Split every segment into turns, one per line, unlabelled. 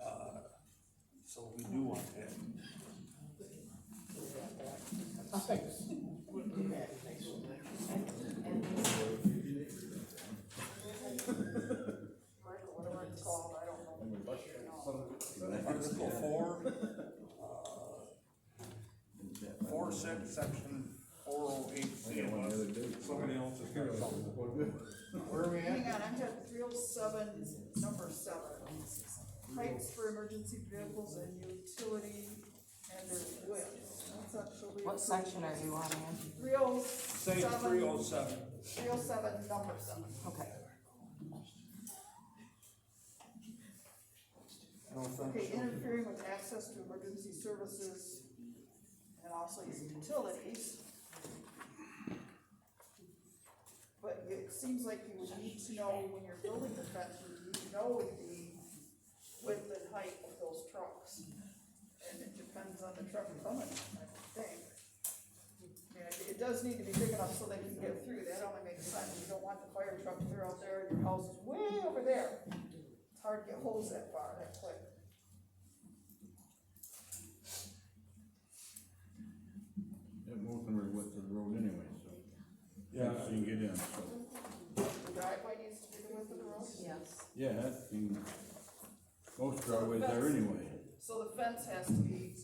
Uh, So we do want that.
Whatever it's called, I don't know.
Article four, uh, four six, section four oh eight C unless somebody else has got something.
Where are we at?
Hang on, I'm at three oh seven, number seven. Heights for emergency vehicles and utility and their width. That's actually.
What section are you on in?
Three oh
Say
seven.
three oh seven.
Three oh seven, number seven.
Okay,
No offense.
Okay, interfering with access to emergency services and also utilities. But it seems like you would need to know when you're building the fence, you need to know the width and height of those trucks. And it depends on the truck coming, I would think. Yeah, it- it does need to be big enough so they can get through, that only makes sense, you don't want the fire truck to out there, and your house is way over there. It's hard to get holes that far, that quick.
That Mulberry with the road anyway, so.
Yeah.
So you can get in, so,
The driveway needs to be the width of the road,
yes.
yeah, that thing, most driveways are anyway,
so the fence has to be,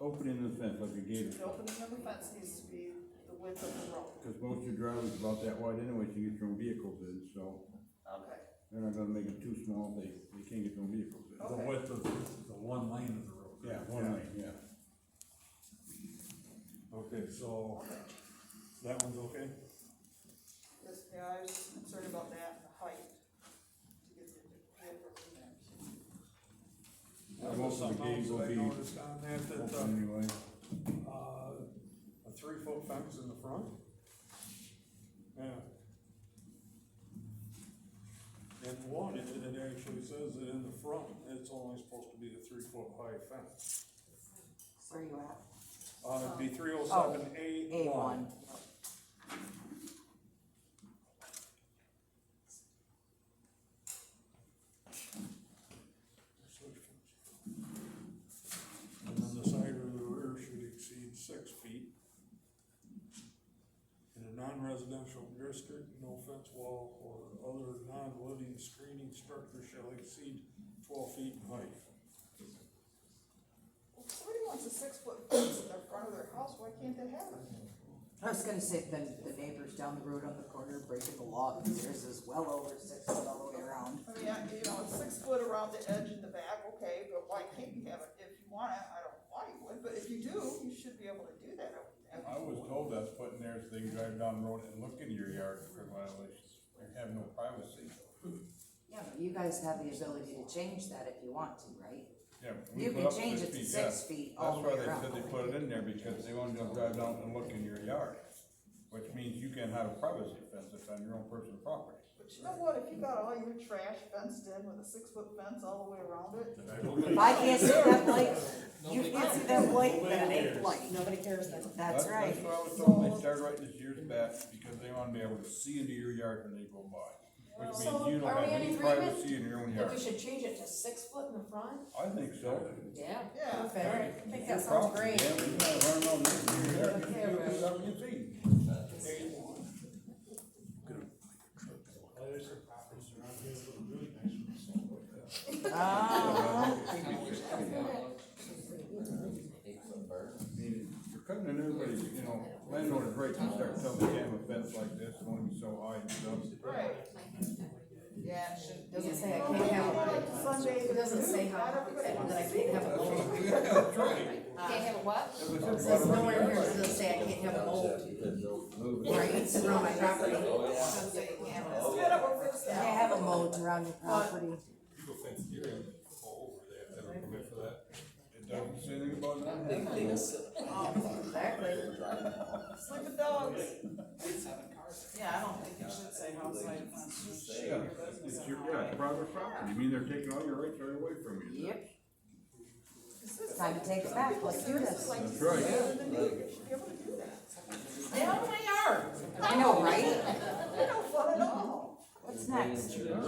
opening the fence like a gate,
the opening of the fence needs to be the width of the road.
cause most of your driveways about that wide anyway, so you get your own vehicles in, so.
Okay,
They're not gonna make it too small, they, they can't get their own vehicles in.
The width of the one lane of the road.
Yeah, one lane, yeah.
Okay, so that one's okay?
this, yeah, I was just concerned about that, and the height. To get the vehicle in there.
There was
Most of the
something else that I
gate will be
noticed on that,
Open
that, uh,
anyway,
uh, a three foot fence in the front? Yeah. And one, it, it actually says that in the front, it's only supposed to be a three foot high fence.
Where are you at?
Uh, it'd be three oh seven A
A
one.
one.
And then the side or the rear should exceed six feet. In a non-residential district, no fence wall or other non-living screening structure shall exceed twelve feet in height.
Well, if Somebody wants a six foot fence in the front of their house, why can't that happen?
I was gonna say, then the neighbors down the road on the corner breaking the law, because theirs is well over six foot all the way around.
I mean, I- you know, it's six foot around the edge in the back, okay, but why can't you have it, if you want it, I don't know why you would, but if you do, you should be able to do that, I would think.
I was told that's putting there so they can drive down the road and look into your yard for violations, you have no privacy.
Yeah, but you guys have the ability to change that if you want to, right?
Yeah, we
You
put
can
up
change it
six
to
feet,
six
yeah.
feet all the way
That's why
around.
they said they put it in there, because they wanted to drive down and look in your yard, which means you can have a privacy fence if on your own personal property.
But you know what, if you got all your trash fenced in with a six foot fence all the way around it,
If I can't see that light, you can't see that light, then it ain't light.
Nobody cares then.
That's right.
That's why I was told, they started writing this years back, because they wanna be able to see into your yard when they go by. Which
So,
means you don't
are we
have
in
any
agreement?
privacy in your own
That
yard.
we should change it to six foot in the front?
I think so.
Yeah.
Yeah.
Perfect. I think
Your
that sounds
property,
great.
yeah, but you gotta learn all this in your yard,
Yeah,
you can do
right.
something you see.
Ah,
mean, you're cutting in everybody's, you know, landlord's right to start telling them, yeah, a fence like this, it's only so high and stuff.
Right. Yeah, it should.
Doesn't say I can't have one.
Sunday.
It doesn't say how, that I can't have a mold.
That's right.
Can't have a what?
That was
It
it.
says nowhere here, does it say I can't have a mold, right, it's around my property.
Can't have a mold around your property.
It doesn't say anything about that.
Exactly.
Sleeping dogs. Yeah, I don't think it should say outside fence.
Yeah, it's your, yeah, it's private property, you mean they're taking all your rights right away from you.
Yep. It's time to take it back, let's do this.
That's right.
In the new, you should be able to do that.
I know, right?
No fun at all.
What's next?